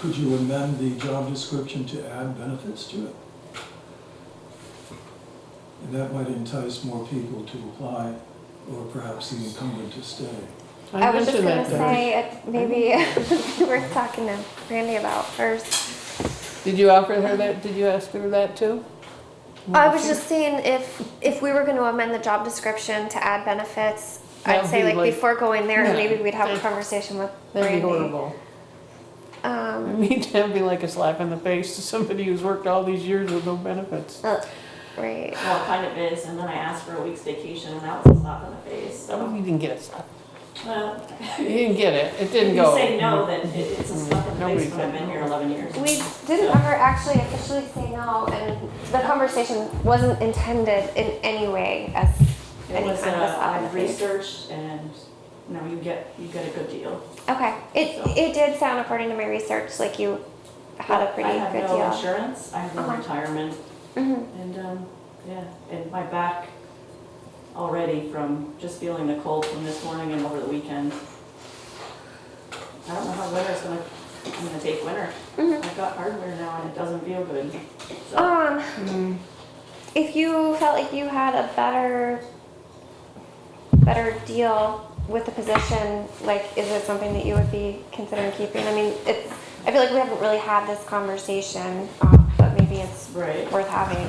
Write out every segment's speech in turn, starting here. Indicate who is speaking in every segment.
Speaker 1: Could you amend the job description to add benefits to it? And that might entice more people to apply, or perhaps the incumbent to stay.
Speaker 2: I was just
Speaker 3: mentioned
Speaker 2: gonna
Speaker 3: that Mm-hmm. to her.
Speaker 2: say, it- maybe worth talking to Randy about first.
Speaker 3: Did you offer her that, did you ask her that too?
Speaker 2: I was just seeing if, if we were gonna amend the job description to add benefits, I'd
Speaker 3: That'd
Speaker 2: say
Speaker 3: be
Speaker 2: like
Speaker 3: like-
Speaker 2: before going there,
Speaker 3: Yeah.
Speaker 2: maybe we'd have a
Speaker 3: That'd-
Speaker 2: conversation with
Speaker 3: That'd be
Speaker 2: Randy.
Speaker 3: horrible. I
Speaker 2: Um,
Speaker 3: mean, that'd be like a slap in the face to somebody who's worked all these years with no benefits.
Speaker 2: uh, right,
Speaker 4: Well, it kind of is, and then I asked for a week's vacation, and that was a slap in the face,
Speaker 3: Oh,
Speaker 4: so.
Speaker 3: you didn't get a slap.
Speaker 4: Well,
Speaker 3: You didn't get it, it
Speaker 4: if
Speaker 3: didn't
Speaker 4: you
Speaker 3: go.
Speaker 4: say no, then it- it's a slap in the
Speaker 3: Nobody
Speaker 4: face, but I've
Speaker 3: said
Speaker 4: been
Speaker 3: no.
Speaker 4: here 11 years.
Speaker 2: we didn't ever actually officially say no, and the conversation wasn't intended in any way as
Speaker 4: It
Speaker 2: any
Speaker 4: was,
Speaker 2: kind of
Speaker 4: uh,
Speaker 2: slap in the
Speaker 4: I
Speaker 2: face.
Speaker 4: researched, and, you know, you get, you get a good deal.
Speaker 2: Okay, it,
Speaker 4: So-
Speaker 2: it did sound according to my research, like you had a pretty
Speaker 4: I have
Speaker 2: good
Speaker 4: no
Speaker 2: deal.
Speaker 4: insurance, I have no
Speaker 2: Uh-huh.
Speaker 4: retirement,
Speaker 2: Mhm.
Speaker 4: and, um, yeah, and my back already from just feeling the cold from this morning and over the weekend. I don't know how winter's gonna, I'm gonna take winter.
Speaker 2: Mhm.
Speaker 4: I've got hardware now, and it doesn't feel good, so.
Speaker 2: Um,
Speaker 3: Mm,
Speaker 2: if you felt like you had a better, better deal with the position, like, is it something that you would be considering keeping? I mean, it's, I feel like we haven't really had this conversation, um, but maybe it's
Speaker 4: Right.
Speaker 2: worth having.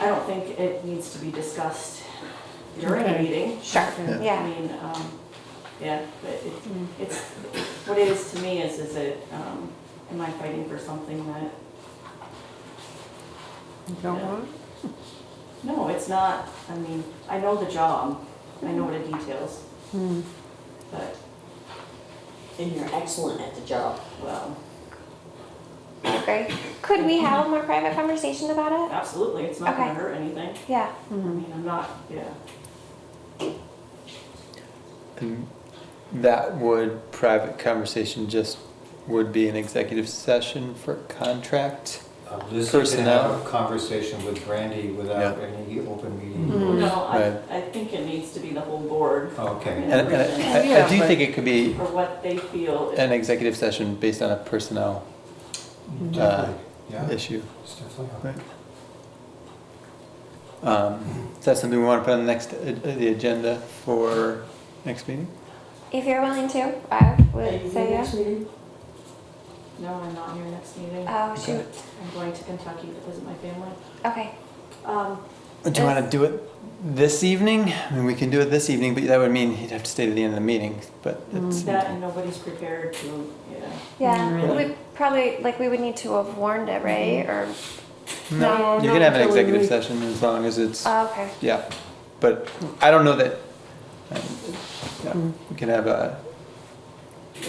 Speaker 4: I don't think it needs to be discussed during a
Speaker 3: Okay.
Speaker 4: meeting.
Speaker 2: Sure,
Speaker 3: Yeah.
Speaker 4: I
Speaker 2: yeah,
Speaker 4: mean, um, yeah, but it, it's, what it is to me is, is it, um, am I fighting for something that,
Speaker 3: you don't want it?
Speaker 4: no, it's not, I mean, I know the job, I know what it details,
Speaker 3: Mm.
Speaker 4: but,
Speaker 5: And you're excellent at the job.
Speaker 4: well,
Speaker 2: I agree. Could we have a more private conversation about it?
Speaker 4: absolutely, it's not gonna
Speaker 2: Okay.
Speaker 4: hurt anything.
Speaker 2: Yeah,
Speaker 4: I mean, I'm not, yeah,
Speaker 6: And that would, private conversation just would be an executive session for contract?
Speaker 7: Uh, Liz, you can
Speaker 6: Personnel.
Speaker 7: have a conversation with Brandy without
Speaker 6: Yeah.
Speaker 7: any open meeting.
Speaker 3: Mhm.
Speaker 4: no, I,
Speaker 6: Right.
Speaker 4: I think it needs to be the whole board
Speaker 7: Okay,
Speaker 6: And, and I- I, I do think it could be
Speaker 4: for what they feel. is-
Speaker 6: an executive session based on a personnel uh,
Speaker 7: definitely, yeah,
Speaker 6: issue.
Speaker 7: it's definitely.
Speaker 6: Right. Um, is that something we want to put on the next, uh, the agenda for next meeting?
Speaker 2: if you're willing to, I
Speaker 4: Are you
Speaker 2: would
Speaker 4: here
Speaker 2: say yes.
Speaker 4: next meeting? No, I'm not here next meeting.
Speaker 2: Oh, shoot.
Speaker 4: I'm going to Kentucky to visit my family.
Speaker 2: Okay.
Speaker 4: Um,
Speaker 6: Do you want to do it this evening? I mean, we can do it this evening, but that would mean he'd have to stay to the end of the meeting, but it's.
Speaker 4: Mm, that and nobody's prepared to, yeah.
Speaker 2: Yeah.
Speaker 6: Really?
Speaker 2: We probably, like, we would need to have warned it, right? Or,
Speaker 3: No, not
Speaker 6: You can have an
Speaker 3: until we
Speaker 6: executive
Speaker 3: leave.
Speaker 6: session as long as it's,
Speaker 2: oh, okay.
Speaker 6: yeah, but I don't know that, um, yeah, we can have a,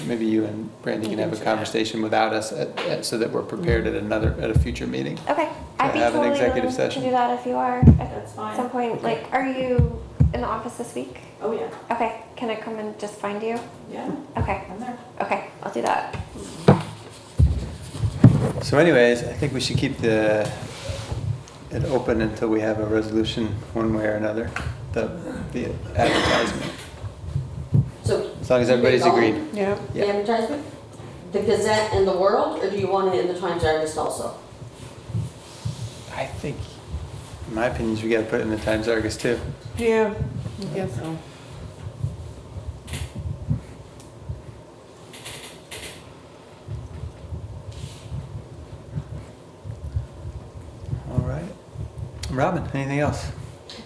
Speaker 6: maybe you and Brandy can Mm-hmm. have a conversation without us at, at, so that we're prepared at another, at a future meeting.
Speaker 2: Okay. I'd
Speaker 6: To
Speaker 2: be
Speaker 6: have an
Speaker 2: totally
Speaker 6: executive
Speaker 2: willing
Speaker 6: session.
Speaker 2: to do that if you are at
Speaker 4: That's fine.
Speaker 2: some point. Like, are you in the office this week?
Speaker 4: Oh, yeah,
Speaker 2: Okay. Can I come and just find you?
Speaker 4: yeah,
Speaker 2: Okay.
Speaker 4: I'm there.
Speaker 2: Okay. I'll do that.
Speaker 6: So anyways, I think we should keep the, it open until we have a resolution one way or another, the, the advertisement,
Speaker 5: So.
Speaker 6: as long as everybody's
Speaker 5: Keep it going,
Speaker 6: agreed.
Speaker 3: Yeah,
Speaker 6: Yeah.
Speaker 5: The advertisement, the Gazette and the World, or do you want it in the Times Digest also?
Speaker 6: I think, in my opinion, is we gotta put it in the Times Argus too.
Speaker 3: yeah, I guess so.
Speaker 6: All right. Robin, anything else?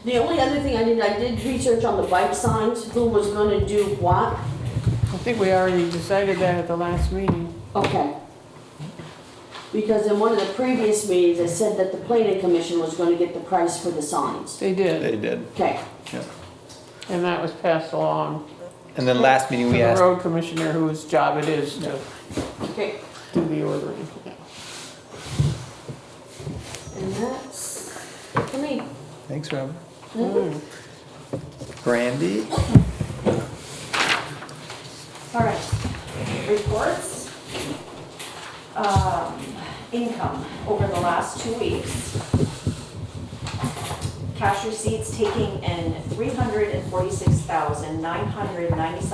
Speaker 5: The only other thing I did, I did research on the bike signs, who was gonna do what.
Speaker 3: I think we already decided that at the last meeting.
Speaker 5: Okay. Because in one of the previous meetings, I said that the planning commission was gonna get the price for the signs.
Speaker 3: They did,
Speaker 6: They did.
Speaker 5: Okay,
Speaker 3: and that was passed along
Speaker 6: And then last meeting
Speaker 3: to
Speaker 6: we
Speaker 3: the
Speaker 6: asked,
Speaker 3: road commissioner whose job it is to
Speaker 5: okay.
Speaker 3: do the ordering.
Speaker 5: And that's, it for me.
Speaker 6: thanks, Robin. Brandy?
Speaker 4: All right, reports. Um, Income over the last two weeks. Cash receipts taking in three hundred and forty-six thousand, nine hundred ninety-seven